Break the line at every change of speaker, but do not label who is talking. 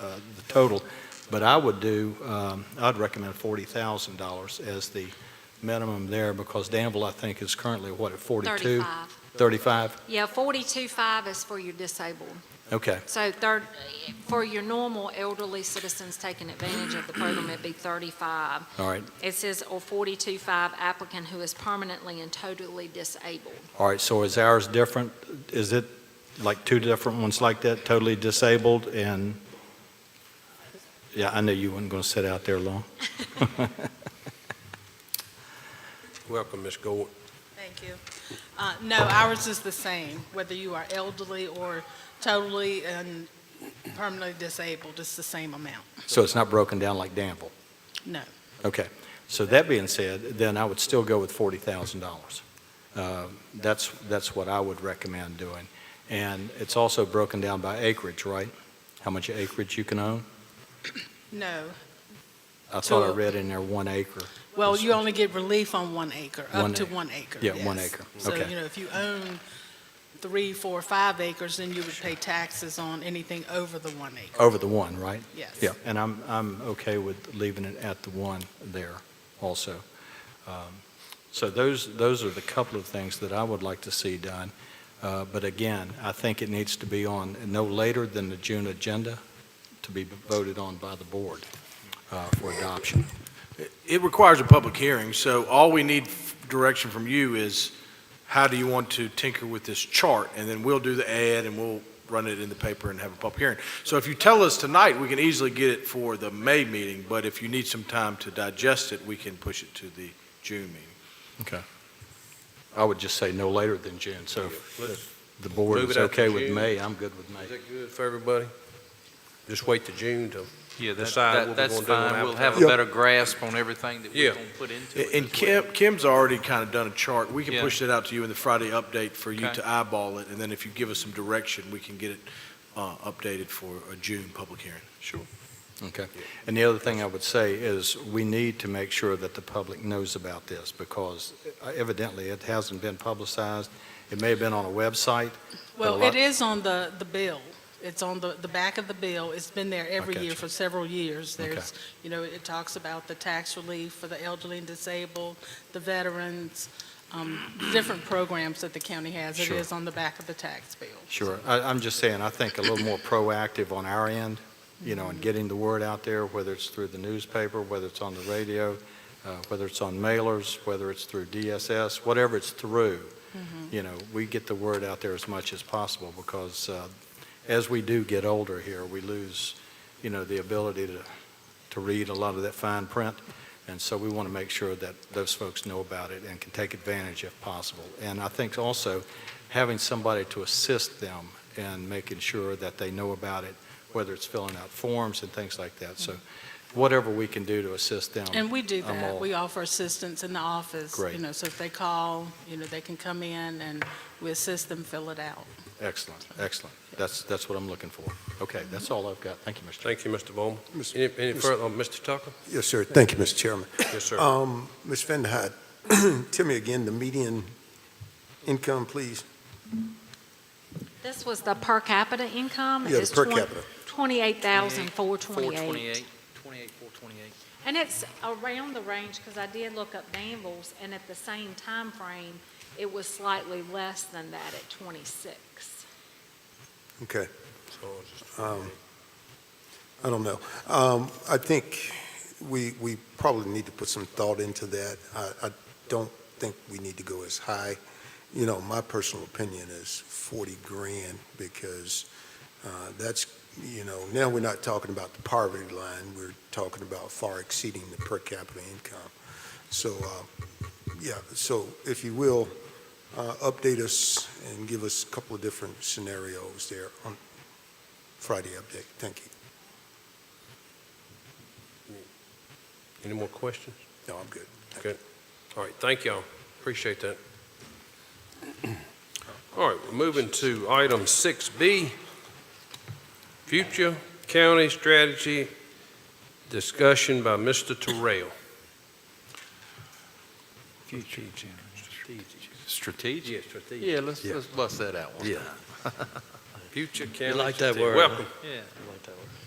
uh, the total, but I would do, um, I'd recommend $40,000 as the minimum there, because Danville, I think, is currently, what, at 42?
35.
35?
Yeah, 42.5 is for your disabled.
Okay,
So third, for your normal elderly citizens taking advantage of the program, it'd be 35.
all right.
It says, or 42.5 applicant who is permanently and totally disabled.
All right, so is ours different? Is it like two different ones like that, totally disabled and, yeah, I know you weren't going to sit out there long.
Welcome, Ms. Gold.
Thank you. Uh, No, ours is the same, whether you are elderly or totally and permanently disabled, it's the same amount.
So it's not broken down like Danville?
No.
Okay, so that being said, then I would still go with forty thousand dollars. Uh, That's, that's what I would recommend doing. And it's also broken down by acreage, right? How much acreage you can own?
No.
I thought I
Total.
read in there one acre.
Well, you only get relief on one acre,
One
up to
acre.
one acre.
Yeah, one
yes.
acre.
So,
Okay.
you know, if you own three, four, five acres, then you would pay taxes on anything over the one acre,
Over the one, right?
yes.
Yeah, and I'm, I'm okay with leaving it at the one there also. Um, So those, those are the couple of things that I would like to see done. Uh, But again, I think it needs to be on no later than the June agenda to be voted on by the board uh, for adoption.
It requires a public hearing, so all we need f- direction from you is, how do you want to tinker with this chart? And then we'll do the ad, and we'll run it in the paper and have a public hearing. So if you tell us tonight, we can easily get it for the May meeting, but if you need some time to digest it, we can push it to the June meeting.
I would just say no later than June, so if the board
Move it
is
out to
okay with
June.
May, I'm good with May.
Is that good for everybody? Just wait to June to,
Yeah, that,
decide what
that,
we're
that's
gonna do on
fine. We'll
advertising.
have a better grasp on everything that
Yeah.
we're gonna put into it.
And
as
Kim,
well.
Kim's already kind of done a chart. We can
Yeah.
push that out to you in the Friday update for you
Okay.
to eyeball it, and then if you give us some direction, we can get it uh, updated for a June public hearing. Sure.
Okay. And the other thing I would say is, we need to make sure that the public knows about this, because uh, evidently it hasn't been publicized. It may have been on a website.
Well,
lot-
it is on the, the bill. It's on the, the back of the bill. It's been there every
Okay.
year for several years. There's, you know, it talks about the tax relief for the elderly and disabled, the veterans, um, different programs that the county has. It
Sure.
is on the back of the tax bill.
Sure. I, I'm just saying, I think a little more proactive on our end, you know, in getting the word out there, whether it's through the newspaper, whether it's on the radio, uh, whether it's on mailers, whether it's through DSS, whatever it's through, you know, we get the word out there as much as possible, because uh, as we do get older here, we lose, you know, the ability to, to read a lot of that fine print, and so we want to make sure that those folks know about it and can take advantage if possible. And I think also, having somebody to assist them in making sure that they know about it, whether it's filling out forms and things like that. So whatever we can do to assist them.
And we do
I'm all-
that. We offer assistance in the office.
Great.
You know, so if they call, you know, they can come in and we assist them fill it out.
Excellent, excellent. That's, that's what I'm looking for. Okay, that's all I've got. Thank you, Mr. Chairman.
thank you, Mr. Bowman.
Mr.
Any, any
Mr.
further, on Mr. Tucker?
Yes, sir. Thank you, Mr. Chairman.
Yes, sir.
Um, Ms. Fenderhut, tell me again the median income, please.
This was the per capita income.
Yeah, the
It's
per
twen-
capita.
28,428.
428, 28, 428.
And it's around the range, because I did look up Danville's, and at the same time frame, it was slightly less than that at 26.
Okay,
So it's just-
Um, I don't know. Um, I think we, we probably need to put some thought into that. I, I don't think we need to go as high. You know, my personal opinion is 40 grand because uh, that's, you know, now we're not talking about the poverty line. We're talking about far exceeding the per capita income. So, uh, yeah, so if you will, uh, update us and give us a couple of different scenarios there on Friday update. Thank you.
Any more questions?
No, I'm good. Thank
Okay.
you.
All right, thank y'all. Appreciate that. All right, we're moving to item six B. Future county strategy discussion by Mr. Terrell.
Future Strategic?
Yes, strategic.
Yeah, let's, let's bust that out one
Yeah.
time.
Future county.
You like that
strategy.
word, huh?
Welcome.
Yeah, I like that word.